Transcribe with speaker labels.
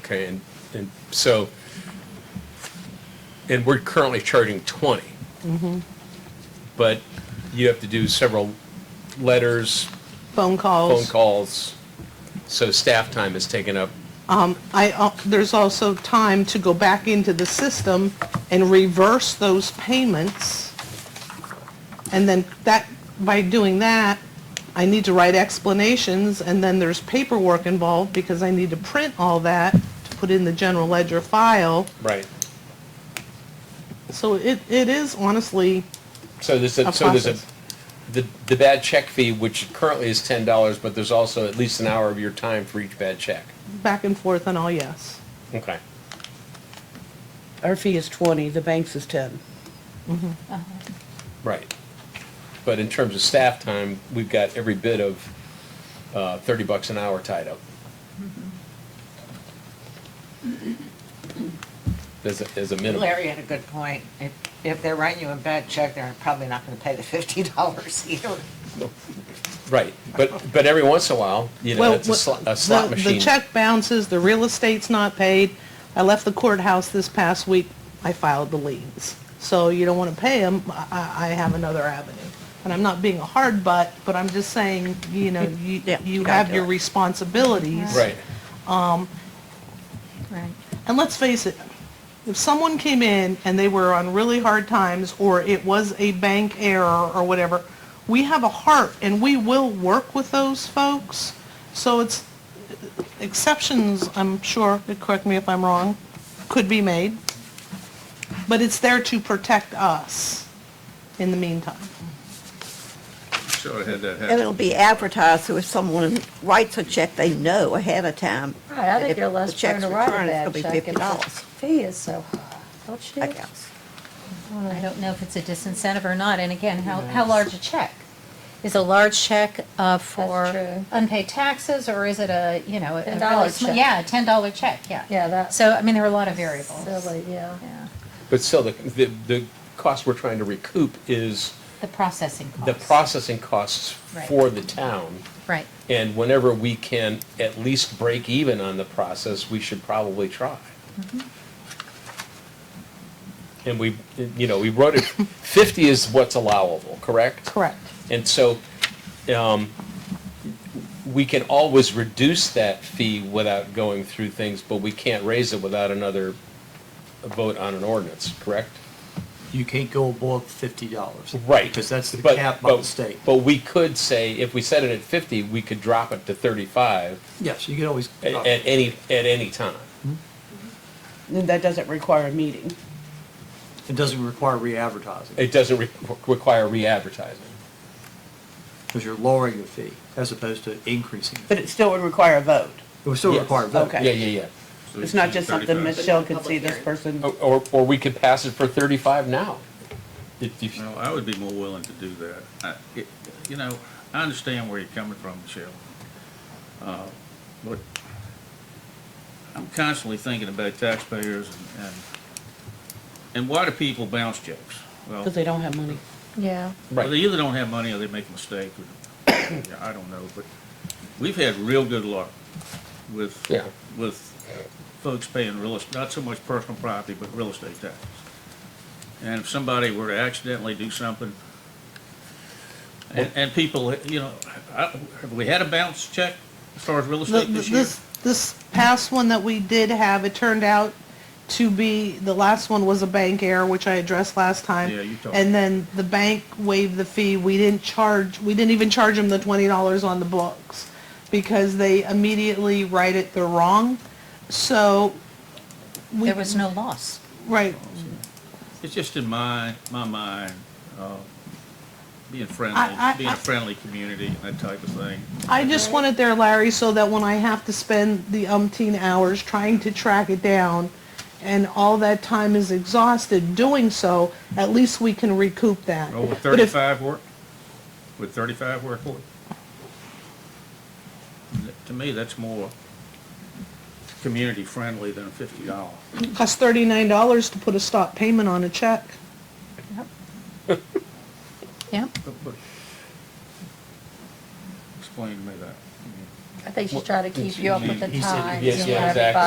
Speaker 1: Okay, and, and so, and we're currently charging 20.
Speaker 2: Mm-hmm.
Speaker 1: But you have to do several letters,
Speaker 2: Phone
Speaker 1: phone
Speaker 2: calls.
Speaker 1: calls, so staff time is taken up.
Speaker 2: I, al- there's also time to go back into the system and reverse those payments. And then that, by doing that, I need to write explanations, and then there's paperwork involved because I need to print all that to put in the general ledger file.
Speaker 1: Right.
Speaker 2: So it, it is honestly,
Speaker 1: So there's a,
Speaker 2: A
Speaker 1: so there's a,
Speaker 2: process.
Speaker 1: the, the bad check fee, which currently is ten dollars, but there's also at least an hour of your time for each bad check.
Speaker 2: back and forth and all yes.
Speaker 1: Okay.
Speaker 3: Our fee is 20, the bank's is 10.
Speaker 1: Right. But in terms of staff time, we've got every bit of, uh, thirty bucks an hour tied up. There's a, there's a minimum.
Speaker 4: Larry had a good point. If, if they're writing you a bad check, they're probably not gonna pay the fifty dollars either.
Speaker 1: Right, but, but every once in a while, you know,
Speaker 2: Well,
Speaker 1: it's a
Speaker 2: what-
Speaker 1: slot, a slot
Speaker 2: the-
Speaker 1: machine.
Speaker 2: The check bounces, the real estate's not paid. I left the courthouse this past week, I filed the liens. So you don't want to pay them, I, I have another avenue. And I'm not being a hard butt, but I'm just saying, you know, you,
Speaker 3: Yeah, you
Speaker 2: you
Speaker 3: gotta
Speaker 2: have
Speaker 3: do
Speaker 2: your
Speaker 3: it.
Speaker 2: responsibilities.
Speaker 1: Right,
Speaker 5: Right.
Speaker 2: And let's face it, if someone came in and they were on really hard times, or it was a bank error or whatever, we have a heart and we will work with those folks. So it's, exceptions, I'm sure, correct me if I'm wrong, could be made. But it's there to protect us in the meantime.
Speaker 6: Should have had that
Speaker 7: And
Speaker 6: happen.
Speaker 7: it'll be advertised, so if someone writes a check, they know ahead of time.
Speaker 5: Right, I
Speaker 7: that if
Speaker 5: think you're less
Speaker 7: the
Speaker 5: prone
Speaker 7: check's
Speaker 5: to write a
Speaker 7: returned,
Speaker 5: bad
Speaker 7: It's
Speaker 5: check
Speaker 7: going to be
Speaker 5: if the
Speaker 7: $50,
Speaker 5: fee is so, high, don't you?
Speaker 7: I guess.
Speaker 5: I don't know if it's a disincentive or not, and again, how, how large a check? Is a large check uh, for
Speaker 8: true.
Speaker 5: unpaid taxes, or is it a, you know? a really
Speaker 8: $10
Speaker 5: sma-
Speaker 8: check.
Speaker 5: Yeah, a ten dollar check, yeah.
Speaker 8: Yeah, that's
Speaker 5: So, I mean, there are a lot of variables.
Speaker 8: silly, yeah.
Speaker 5: Yeah.
Speaker 1: but still, the, the, the cost we're trying to recoup is
Speaker 5: The processing costs.
Speaker 1: the processing costs
Speaker 5: Right.
Speaker 1: for the town.
Speaker 5: Right,
Speaker 1: And whenever we can at least break even on the process, we should probably try. And we, you know, we wrote it, 50 is what's allowable, correct?
Speaker 2: Correct.
Speaker 1: And so um, we can always reduce that fee without going through things, but we can't raise it without another vote on an ordinance, correct?
Speaker 9: You can't go above fifty dollars.
Speaker 1: Right.
Speaker 9: Because that's the
Speaker 1: But-
Speaker 9: cap by the
Speaker 1: but-
Speaker 9: state.
Speaker 1: But we could say, if we set it at 50, we could drop it to 35
Speaker 9: Yes, you can always.
Speaker 1: at at any, at any time.
Speaker 3: Then that doesn't require a meeting.
Speaker 9: It doesn't require re-advertising,
Speaker 1: It doesn't re- require re-advertising.
Speaker 9: because you're lowering your fee as opposed to increasing. it.
Speaker 3: But it still would require a vote.
Speaker 9: It would still
Speaker 1: Yes.
Speaker 9: require a vote.
Speaker 3: Okay.
Speaker 1: Yeah, yeah, yeah.
Speaker 6: So
Speaker 3: It's not
Speaker 6: should
Speaker 3: just
Speaker 6: be
Speaker 3: something
Speaker 6: 35.
Speaker 3: Michelle could see this person.
Speaker 1: Or- Or, or we could pass it for 35 now. If- if-
Speaker 6: Well, I would be more willing to do that. I- it- You know, I understand where you're coming from, Michelle. Uh, But I'm constantly thinking about taxpayers and- and, and why do people bounce checks? Well,
Speaker 3: Because they don't have money.
Speaker 8: Yeah.
Speaker 6: Well, they either don't have money or they make a mistake, or, yeah, I don't know, but we've had real good luck with,
Speaker 1: Yeah.
Speaker 6: with folks paying real, est- not so much personal property, but real estate taxes. And if somebody were to accidentally do something, and, and people, you know, I, have we had a bounce check as far as real
Speaker 2: The-
Speaker 6: estate
Speaker 2: the-
Speaker 6: this year?
Speaker 2: This, this past one that we did have, it turned out to be, the last one was a bank error, which I addressed last time.
Speaker 6: Yeah, you told me.
Speaker 2: And then the bank waived the fee. We didn't charge, we didn't even charge them the twenty dollars on the books because they immediately write it, they're wrong. So, we,
Speaker 5: there was no loss.
Speaker 2: right,
Speaker 6: It's just in my, my mind, uh, being
Speaker 2: I- I-
Speaker 6: friendly, being
Speaker 2: I-
Speaker 6: a friendly community and that type of thing.
Speaker 2: I just want it there, Larry, so that when I have to spend the umpteen hours trying to track it down, and all that time is exhausted doing so, at least we can recoup that.
Speaker 6: Oh, with
Speaker 2: But if-
Speaker 6: thirty-five work? With thirty-five work, Lloyd? That- To me, that's more community-friendly than a fifty dollar.
Speaker 2: Costs thirty-nine dollars to put a stop payment on a check.
Speaker 5: Yeah,
Speaker 6: Explain to me that.
Speaker 8: I think she's trying to keep you up with the
Speaker 9: He said-
Speaker 8: times
Speaker 1: yes,
Speaker 8: and
Speaker 1: yeah,
Speaker 8: everybody.
Speaker 1: exactly.